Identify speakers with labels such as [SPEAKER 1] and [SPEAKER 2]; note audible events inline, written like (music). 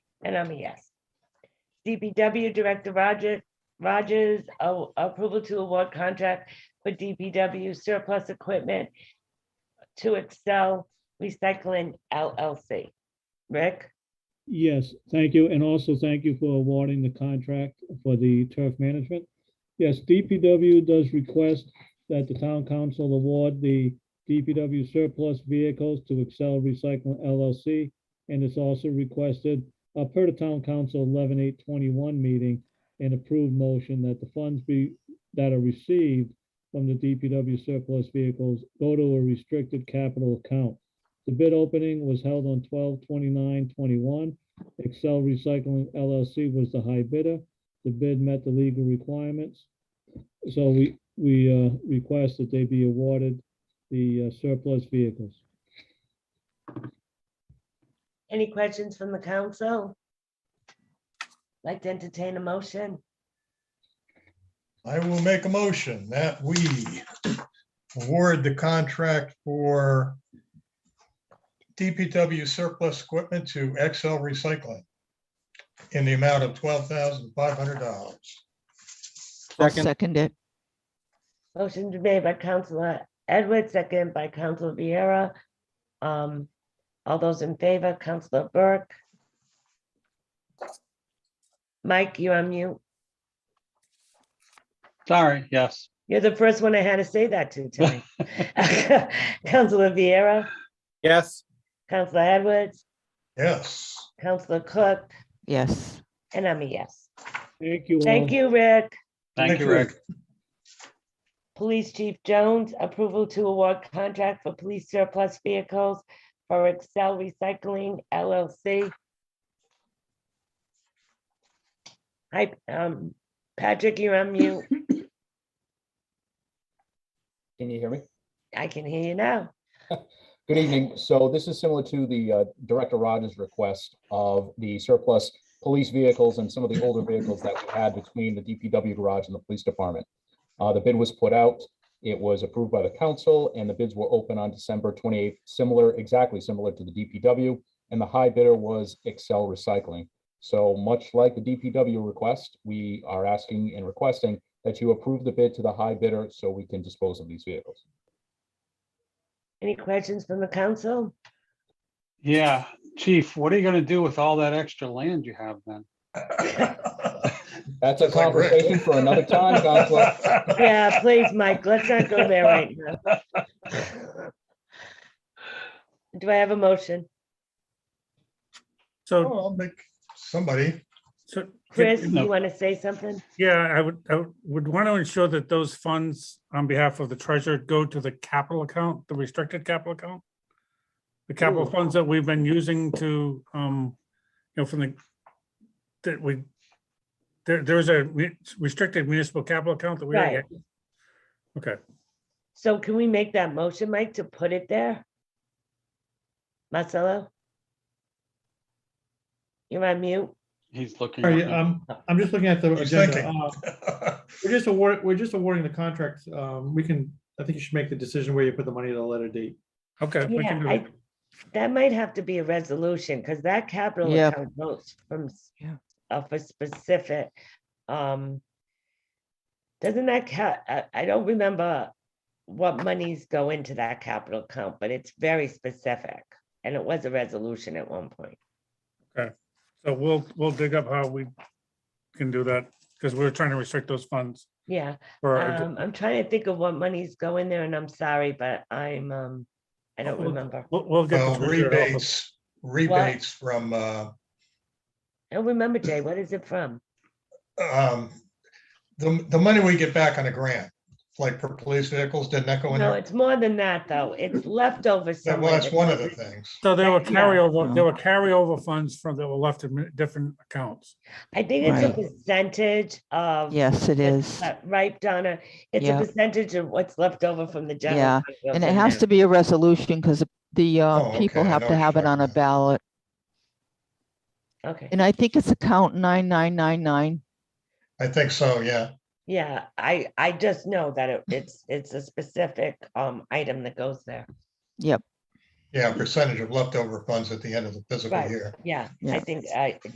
[SPEAKER 1] and I'm a yes. DPW Director Roger, Rogers, a- approval to award contract for DPW surplus equipment to Excel Recycling LLC. Rick?
[SPEAKER 2] Yes, thank you, and also thank you for awarding the contract for the turf management. Yes, DPW does request that the town council award the DPW surplus vehicles to Excel Recycling LLC. And it's also requested, uh, per the town council eleven eight twenty-one meeting, an approved motion that the funds be, that are received from the DPW surplus vehicles go to a restricted capital account. The bid opening was held on 12-29-21. Excel Recycling LLC was the high bidder. The bid met the legal requirements. So we, we uh, request that they be awarded the uh, surplus vehicles.
[SPEAKER 1] Any questions from the council? Like to entertain a motion?
[SPEAKER 3] I will make a motion that we award the contract for DPW surplus equipment to XL Recycling in the amount of twelve thousand five hundred dollars.
[SPEAKER 4] I'll
[SPEAKER 5] Second.
[SPEAKER 4] second it.
[SPEAKER 1] Motion is made by Councilor Edwards, second by Councilor Vieira. Um, all those in favor, Councilor Burke? Mike, you're on mute.
[SPEAKER 5] Sorry, yes.
[SPEAKER 1] You're the first one I had to say that
[SPEAKER 5] (laughs)
[SPEAKER 1] to tonight. (laughs) Councilor Vieira,
[SPEAKER 5] Yes.
[SPEAKER 1] Councilor Edwards,
[SPEAKER 3] Yes,
[SPEAKER 1] Councilor Cook,
[SPEAKER 4] Yes.
[SPEAKER 1] and I'm a yes.
[SPEAKER 2] Thank you all.
[SPEAKER 1] Thank you, Rick.
[SPEAKER 5] Thank you,
[SPEAKER 3] Thank (laughs)
[SPEAKER 5] Rick.
[SPEAKER 1] Police Chief Jones, approval to award contract for police surplus vehicles for Excel Recycling LLC. Hi, um, Patrick, you're on mute.
[SPEAKER 6] Can you hear me?
[SPEAKER 1] I can hear you now.
[SPEAKER 6] Good evening. So this is similar to the uh, Director Rogers' request of the surplus police vehicles and some of the older vehicles that we had between the DPW garage and the police department. Uh, The bid was put out, it was approved by the council, and the bids were open on December 28th, similar, exactly similar to the DPW, and the high bidder was Excel Recycling. So much like the DPW request, we are asking and requesting that you approve the bid to the high bidder so we can dispose of these vehicles.
[SPEAKER 1] Any questions from the council?
[SPEAKER 5] Yeah, Chief, what are you gonna do with all that extra land you have then?
[SPEAKER 6] That's a
[SPEAKER 3] Just like Rick.
[SPEAKER 6] conversation for another
[SPEAKER 3] (laughs)
[SPEAKER 6] time, Counselor.
[SPEAKER 1] Yeah, please, Mike, let's not go there right now. Do I have a motion?
[SPEAKER 3] Oh,
[SPEAKER 7] So,
[SPEAKER 3] I'll make somebody,
[SPEAKER 7] so.
[SPEAKER 1] Oh, Chris,
[SPEAKER 5] No.
[SPEAKER 1] you want to say something?
[SPEAKER 7] Yeah, I would, I would want to ensure that those funds on behalf of the treasurer go to the capital account, the restricted capital account. The capital
[SPEAKER 1] Ooh.
[SPEAKER 7] funds that we've been using to, um, you know, from the, that we, there, there's a re- restricted municipal capital account that we. already
[SPEAKER 1] Right.
[SPEAKER 7] had. Okay,
[SPEAKER 1] So can we make that motion, Mike, to put it there? Marcelo? You're on mute.
[SPEAKER 5] He's looking.
[SPEAKER 8] Sorry,
[SPEAKER 5] at me.
[SPEAKER 8] um, I'm just looking at the
[SPEAKER 3] He's
[SPEAKER 8] agenda.
[SPEAKER 3] thinking.
[SPEAKER 8] Uh, We're just award, we're just awarding the contract. Um, we can, I think you should make the decision where you put the money at a later date.
[SPEAKER 7] okay. we
[SPEAKER 1] Yeah,
[SPEAKER 7] can do
[SPEAKER 1] I,
[SPEAKER 7] that.
[SPEAKER 1] that might have to be a resolution, because that capital
[SPEAKER 4] Yeah.
[SPEAKER 1] account votes from, s-
[SPEAKER 4] Yeah.
[SPEAKER 1] uh, for specific, um. Doesn't that ca, I, I don't remember what monies go into that capital account, but it's very specific, and it was a resolution at one point.
[SPEAKER 7] So we'll, we'll dig up how we can do that, because we're trying to restrict those funds.
[SPEAKER 1] Yeah,
[SPEAKER 7] for our-
[SPEAKER 1] um, I'm trying to think of what monies go in there, and I'm sorry, but I'm, um, I don't
[SPEAKER 7] Well,
[SPEAKER 1] remember.
[SPEAKER 7] We'll, we'll get. the
[SPEAKER 3] Oh, well,
[SPEAKER 7] treasurer to help us.
[SPEAKER 3] rebates, rebates from, uh,
[SPEAKER 1] I don't remember, Jay, what is it from?
[SPEAKER 3] um, the, the money we get back on a grant, like for police vehicles, didn't that go in
[SPEAKER 1] No,
[SPEAKER 3] there?
[SPEAKER 1] it's more than that, though. It's leftover
[SPEAKER 3] That-
[SPEAKER 1] somewhere.
[SPEAKER 3] Well, that's
[SPEAKER 1] that
[SPEAKER 3] one of the
[SPEAKER 1] doesn't-
[SPEAKER 3] things.
[SPEAKER 7] So there were
[SPEAKER 1] That- yeah.
[SPEAKER 7] carryover, there
[SPEAKER 5] Mhm.
[SPEAKER 7] were carryover funds from that were left in mi- different accounts.
[SPEAKER 1] I think it's a
[SPEAKER 4] Right.
[SPEAKER 1] percentage of.
[SPEAKER 4] Yes, it is.
[SPEAKER 1] uh, Right, Donna? It's a
[SPEAKER 4] Yeah.
[SPEAKER 1] percentage of what's left over from the general.
[SPEAKER 4] Yeah,
[SPEAKER 1] fund goes
[SPEAKER 4] And it
[SPEAKER 1] in
[SPEAKER 4] has
[SPEAKER 1] there.
[SPEAKER 4] to be a resolution because the
[SPEAKER 3] Oh,
[SPEAKER 4] uh, people
[SPEAKER 3] okay, I
[SPEAKER 4] have
[SPEAKER 3] know
[SPEAKER 4] to
[SPEAKER 3] what
[SPEAKER 4] have
[SPEAKER 3] you're
[SPEAKER 4] it on a
[SPEAKER 3] talking
[SPEAKER 4] ballot.
[SPEAKER 1] Okay,
[SPEAKER 4] And I think it's account 9999.
[SPEAKER 3] I think so, yeah.
[SPEAKER 1] yeah, I, I just know that it- it's, it's a specific, um, item that goes there.
[SPEAKER 4] Yep.
[SPEAKER 3] Yeah, percentage of leftover funds at the end of the physical
[SPEAKER 1] Right.
[SPEAKER 3] year.
[SPEAKER 1] Yeah, I
[SPEAKER 4] Yeah.
[SPEAKER 1] think I,